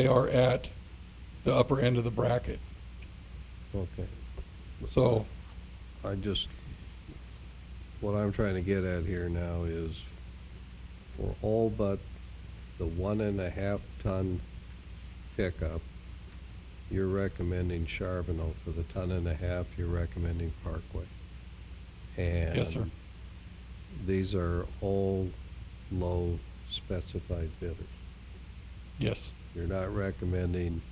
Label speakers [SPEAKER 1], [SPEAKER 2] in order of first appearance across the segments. [SPEAKER 1] they are at the upper end of the bracket.
[SPEAKER 2] Okay,
[SPEAKER 1] So,
[SPEAKER 2] I just, what I'm trying to get at here now is for all but the one and a half ton pickup, you're recommending Charbonneau. For the ton and a half, you're recommending Parkway.
[SPEAKER 1] yes, sir.
[SPEAKER 2] And these are all low specified bidders.
[SPEAKER 1] Yes,
[SPEAKER 2] You're not recommending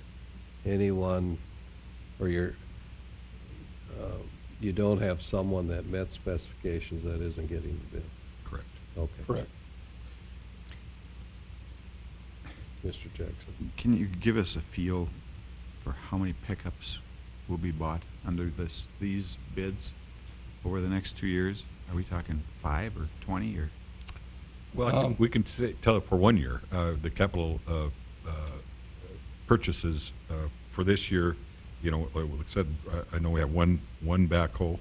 [SPEAKER 2] anyone, or you're, uh, you don't have someone that met specifications that isn't getting the bid.
[SPEAKER 3] Correct.
[SPEAKER 2] Okay.
[SPEAKER 1] correct.
[SPEAKER 2] Mr. Jackson.
[SPEAKER 3] Can you give us a feel for how many pickups will be bought under this, these bids over the next two years? Are we talking five or 20 or?
[SPEAKER 4] Well, I
[SPEAKER 1] Um,
[SPEAKER 4] think we can say, tell it for one year, uh, the capital, uh, uh, purchases, uh, for this year, you know, like I said, I, I know we have one, one backhoe,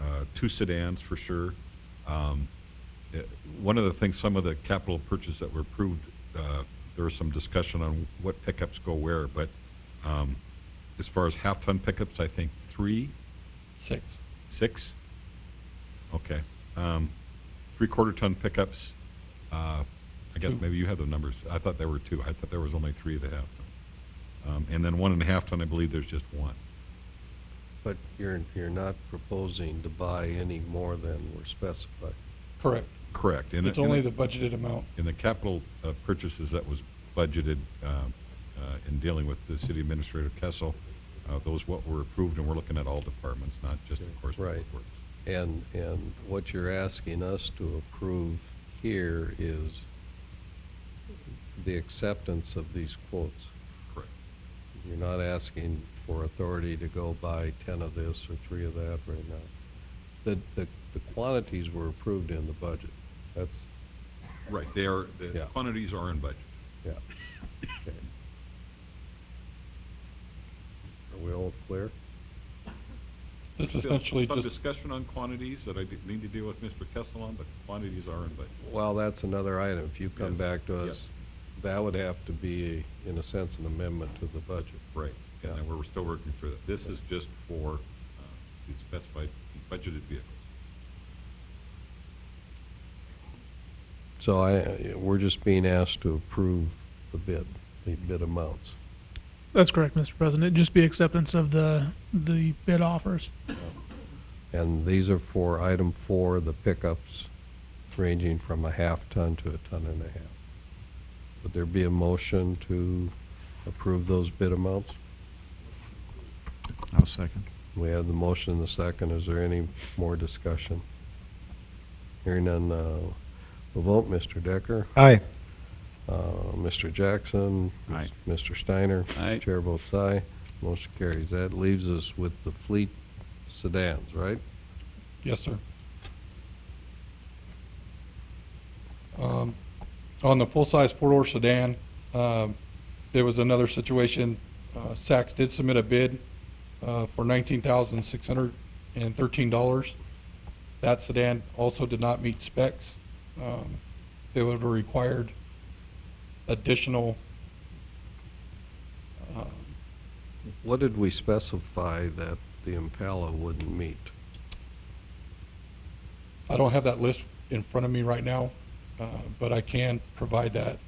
[SPEAKER 4] uh, two sedans for sure. Um, eh, one of the things, some of the capital purchase that were approved, uh, there was some discussion on what pickups go where, but, um, as far as half-ton pickups, I think three,
[SPEAKER 1] Six.
[SPEAKER 4] Six? Okay. Um, three-quarter ton pickups, uh, I guess
[SPEAKER 1] Two.
[SPEAKER 4] maybe you have the numbers. I thought there were two. I thought there was only three that have them. Um, and then one and a half ton, I believe there's just one.
[SPEAKER 2] But you're, you're not proposing to buy any more than were specified.
[SPEAKER 1] Correct.
[SPEAKER 4] Correct. And
[SPEAKER 1] It's only the budgeted amount.
[SPEAKER 4] In the capital uh, purchases that was budgeted, um, uh, in dealing with the city administrator Kessel, uh, those what were approved, and we're looking at all departments, not just, of course, Public
[SPEAKER 2] Right.
[SPEAKER 4] Works.
[SPEAKER 2] And, and what you're asking us to approve here is the acceptance of these quotes.
[SPEAKER 4] Correct.
[SPEAKER 2] You're not asking for authority to go buy ten of this or three of that right now. The, the, the quantities were approved in the budget. That's,
[SPEAKER 4] Right, they are,
[SPEAKER 2] Yeah.
[SPEAKER 4] the quantities are in budget.
[SPEAKER 2] yeah. Okay. Are we all clear?
[SPEAKER 1] This
[SPEAKER 4] Still
[SPEAKER 1] essentially
[SPEAKER 4] Some
[SPEAKER 1] just,
[SPEAKER 4] discussion on quantities that I did- need to deal with Mr. Kessel on, but quantities are in, but
[SPEAKER 2] Well, that's another item. If you come
[SPEAKER 4] Yes.
[SPEAKER 2] back to
[SPEAKER 4] Yes.
[SPEAKER 2] us, that would have to be, in a sense, an amendment to the budget.
[SPEAKER 4] right. And then we're still working through that. This is just for uh, the specified budgeted vehicles.
[SPEAKER 2] So I, we're just being asked to approve the bid, the bid amounts.
[SPEAKER 5] That's correct, Mr. President. It'd Just be acceptance of the, the bid offers.
[SPEAKER 2] And these are for item four, the pickups ranging from a half ton to a ton and a half. Would there be a motion to approve those bid amounts?
[SPEAKER 3] I'll second.
[SPEAKER 2] We have the motion and the second. Is there any more discussion? Hearing none, uh, we'll vote. Mr. Decker?
[SPEAKER 6] Aye.
[SPEAKER 2] Uh, Mr. Jackson?
[SPEAKER 3] Aye.
[SPEAKER 2] Mr. Steiner?
[SPEAKER 3] Aye.
[SPEAKER 2] Chair votes aye. Motion carries. That leaves us with the fleet sedans, right?
[SPEAKER 1] yes, sir. Um, On the full-size four-door sedan, um, there was another situation. Uh, Saks did submit a bid uh, for nineteen thousand six hundred and thirteen dollars. That sedan also did not meet specs. Um, It would have required additional uh,
[SPEAKER 2] What did we specify that the Impala wouldn't meet?
[SPEAKER 1] I don't have that list in front of me right now, uh, but I can provide that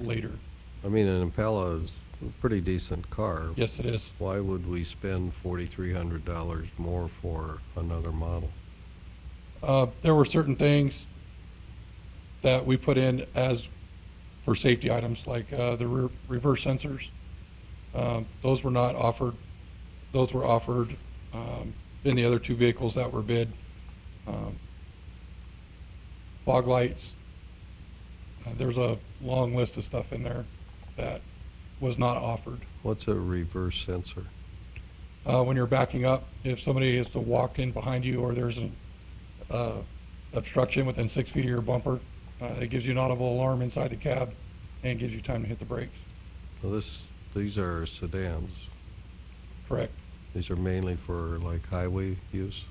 [SPEAKER 1] later.
[SPEAKER 2] I mean, an Impala is a pretty decent car.
[SPEAKER 1] Yes, it is.
[SPEAKER 2] Why would we spend forty-three hundred dollars more for another model?
[SPEAKER 1] Uh, There were certain things that we put in as for safety items, like uh, the rear- reverse sensors. Um, Those were not offered, those were offered um, in the other two vehicles that were bid. Um, Fog lights, Uh, there's a long list of stuff in there that was not offered.
[SPEAKER 2] What's a reverse sensor?
[SPEAKER 1] uh, when you're backing up, if somebody is to walk in behind you or there's an uh, obstruction within six feet of your bumper, uh, it gives you an audible alarm inside the cab and gives you time to hit the brakes.
[SPEAKER 2] Well, this, these are sedans.
[SPEAKER 1] Correct.
[SPEAKER 2] These are mainly for like highway use.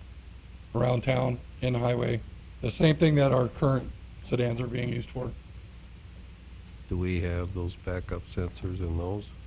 [SPEAKER 1] Around town, in the highway, the same thing that our current sedans are being used for.
[SPEAKER 2] Do we have those backup sensors in those?